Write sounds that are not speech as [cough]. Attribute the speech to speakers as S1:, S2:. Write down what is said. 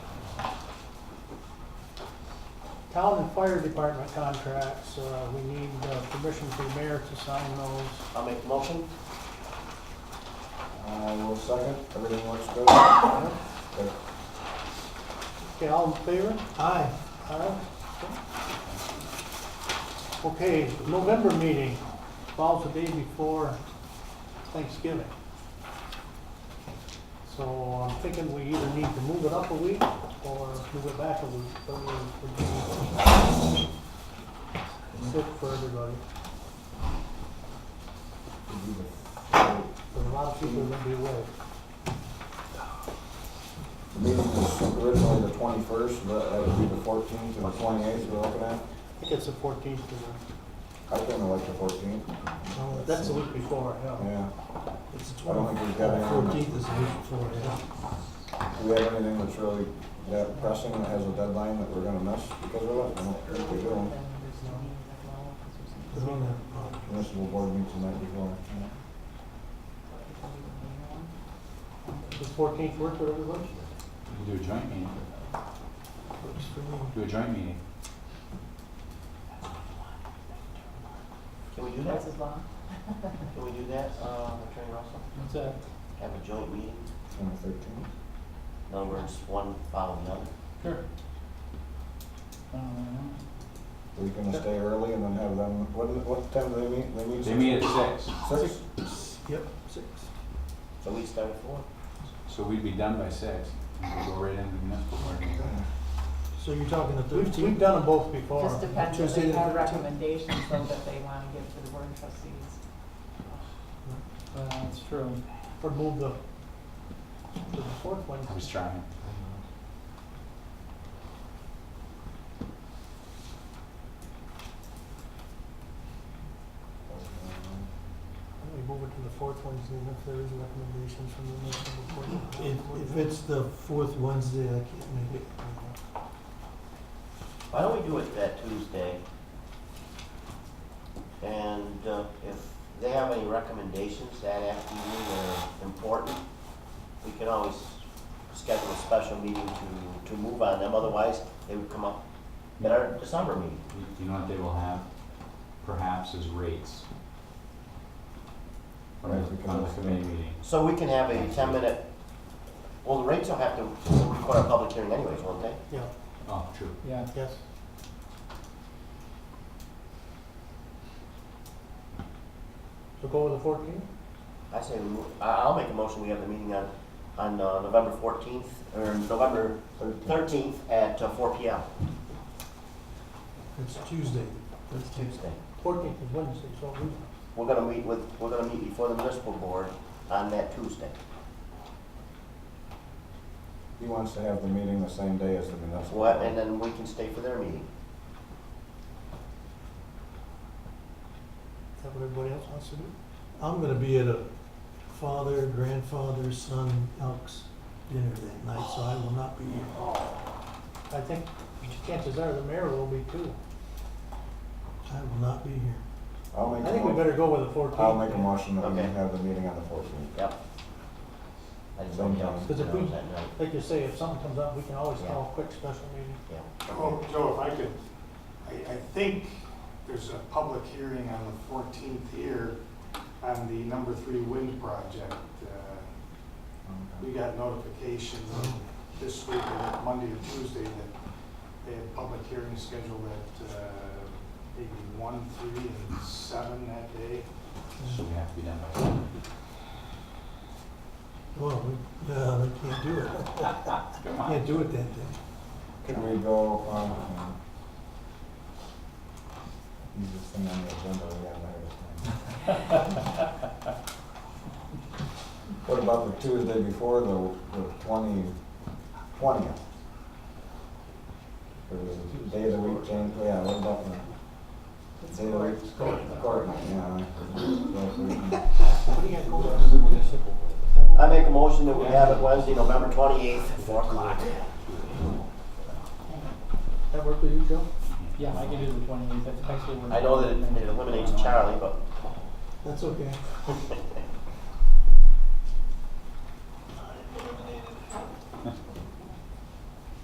S1: Town and fire department contracts, uh, we need uh, permission for the mayor to sign those.
S2: I'll make the motion.
S3: I will Uh, second, everything looks good. Good.
S1: Okay, all in favor? Aye. Aye. Okay, November meeting, falls the day before Thanksgiving. So I'm thinking we either need to move it up a week or move it back a week, but we, we do look for everybody. There are a lot of people that be away.
S3: The meeting was originally the twenty-first, but that would be the fourteenth and the twenty-eighth we're looking at.
S1: I think it's the fourteenth of
S3: I think I like the fourteenth,
S1: the, Oh, that's the week before, yeah.
S3: yeah.
S4: It's the
S3: I don't
S4: twelfth.
S3: think we've got anything,
S4: Fourteenth is the week before, yeah.
S3: do we have anything that's really that pressing that has a deadline that we're gonna miss because of it? I don't think we do.
S4: We don't have a
S1: uh,
S4: problem.
S3: Municipal board meets the night before.
S1: Does fourteenth work for everybody?
S5: We can do a joint meeting,
S4: Works for me.
S5: do a joint meeting.
S2: Can we do that?
S6: That's as long.
S2: Can we do that, uh, Attorney Russell?
S1: What's that?
S2: Have a joint meeting,
S3: On the thirteenth?
S2: in other words, one following the other.
S5: Sure.
S3: Are we gonna stay early and then have them, what, what time do they meet? They meet
S5: They meet at six,
S3: Six?
S4: Yep, six.
S2: So we start at four.
S5: so we'd be done by six, and we'd go right into the municipal board meeting.
S4: So you're talking the
S1: We've, we've
S4: thirteenth?
S1: done them both before.
S6: Just depends if
S4: Tuesday
S6: they
S4: the
S6: have
S4: 13th.
S6: recommendations though that they want to give to the board of trustees.
S1: That's true. Or move the, to the fourth one.
S5: I was trying.
S1: We move it to the fourth Wednesday if there is recommendations from the municipal court.
S4: If, if it's the fourth Wednesday, I can't make it.
S2: Why don't we do it that Tuesday? And uh, if they have any recommendations that after meeting that are important, we can always schedule a special meeting to, to move on them, otherwise they would come up at our December meeting.
S5: You- You know what they will have perhaps is rates. On
S3: Right, we
S5: the,
S3: can
S5: on the
S3: also-
S5: committee meeting.
S2: So we can have a ten-minute, well, the rates will have to, we put a public hearing anyways, won't they?
S1: Yeah,
S5: Oh, true.
S1: yeah, yes. So go with the fourteenth?
S2: I say, we move- I- I'll make a motion, we have the meeting on, on uh, November fourteenth, or November thirteenth at uh, four P M.
S4: It's Tuesday.
S2: It's Tuesday.
S1: Fourteenth is Wednesday, so we,
S2: We're gonna meet with, we're gonna meet before the municipal board on that Tuesday.
S3: He wants to have the meeting the same day as the municipal.
S2: What, and then we can stay for their meeting.
S1: is that what everybody else wants to do?
S4: I'm gonna be at a father, grandfather, son, Elks dinner that night, so I will not be here.
S1: I think chances are the mayor will be too.
S4: I will not be here.
S3: I'll make,
S1: I think we
S3: a mo-
S1: better go with the fourteenth.
S3: I'll make a motion that we
S2: Okay.
S3: have the meeting on the fourteenth.
S2: Yep. I just don't know.
S1: Because if we-
S2: That night,
S1: Like you say, if something comes up, we can always call a quick special meeting.
S2: yeah.
S7: Oh, Joe, if I could, I, I think there's a public hearing on the fourteenth here on the number three wind project. Uh, We got notification this week, uh, Monday or Tuesday, that they had public hearings scheduled at, uh, maybe one, three, and seven that day.
S5: So we have to be done by six.
S4: Well, we, uh, we can't
S1: [laughs]
S4: do it.
S5: Come on.
S4: Can't do it that day.
S3: Can we go, um, um, easiest thing on the agenda, we got ahead of time. What about the Tuesday before, the, the twenty, twentieth? Or the day of the week change, yeah, what about the
S6: It's
S3: day of the
S6: for-
S3: week? Court, yeah. Yes, we can-
S1: What do you got going on?
S2: I make a motion that we have it Wednesday, November twenty-eighth, at four o'clock.
S1: That work with you, Joe?
S8: Yeah, I can do the twenty-eighth, that's actually when.
S2: I know that it it eliminates Charlie, but
S4: That's okay.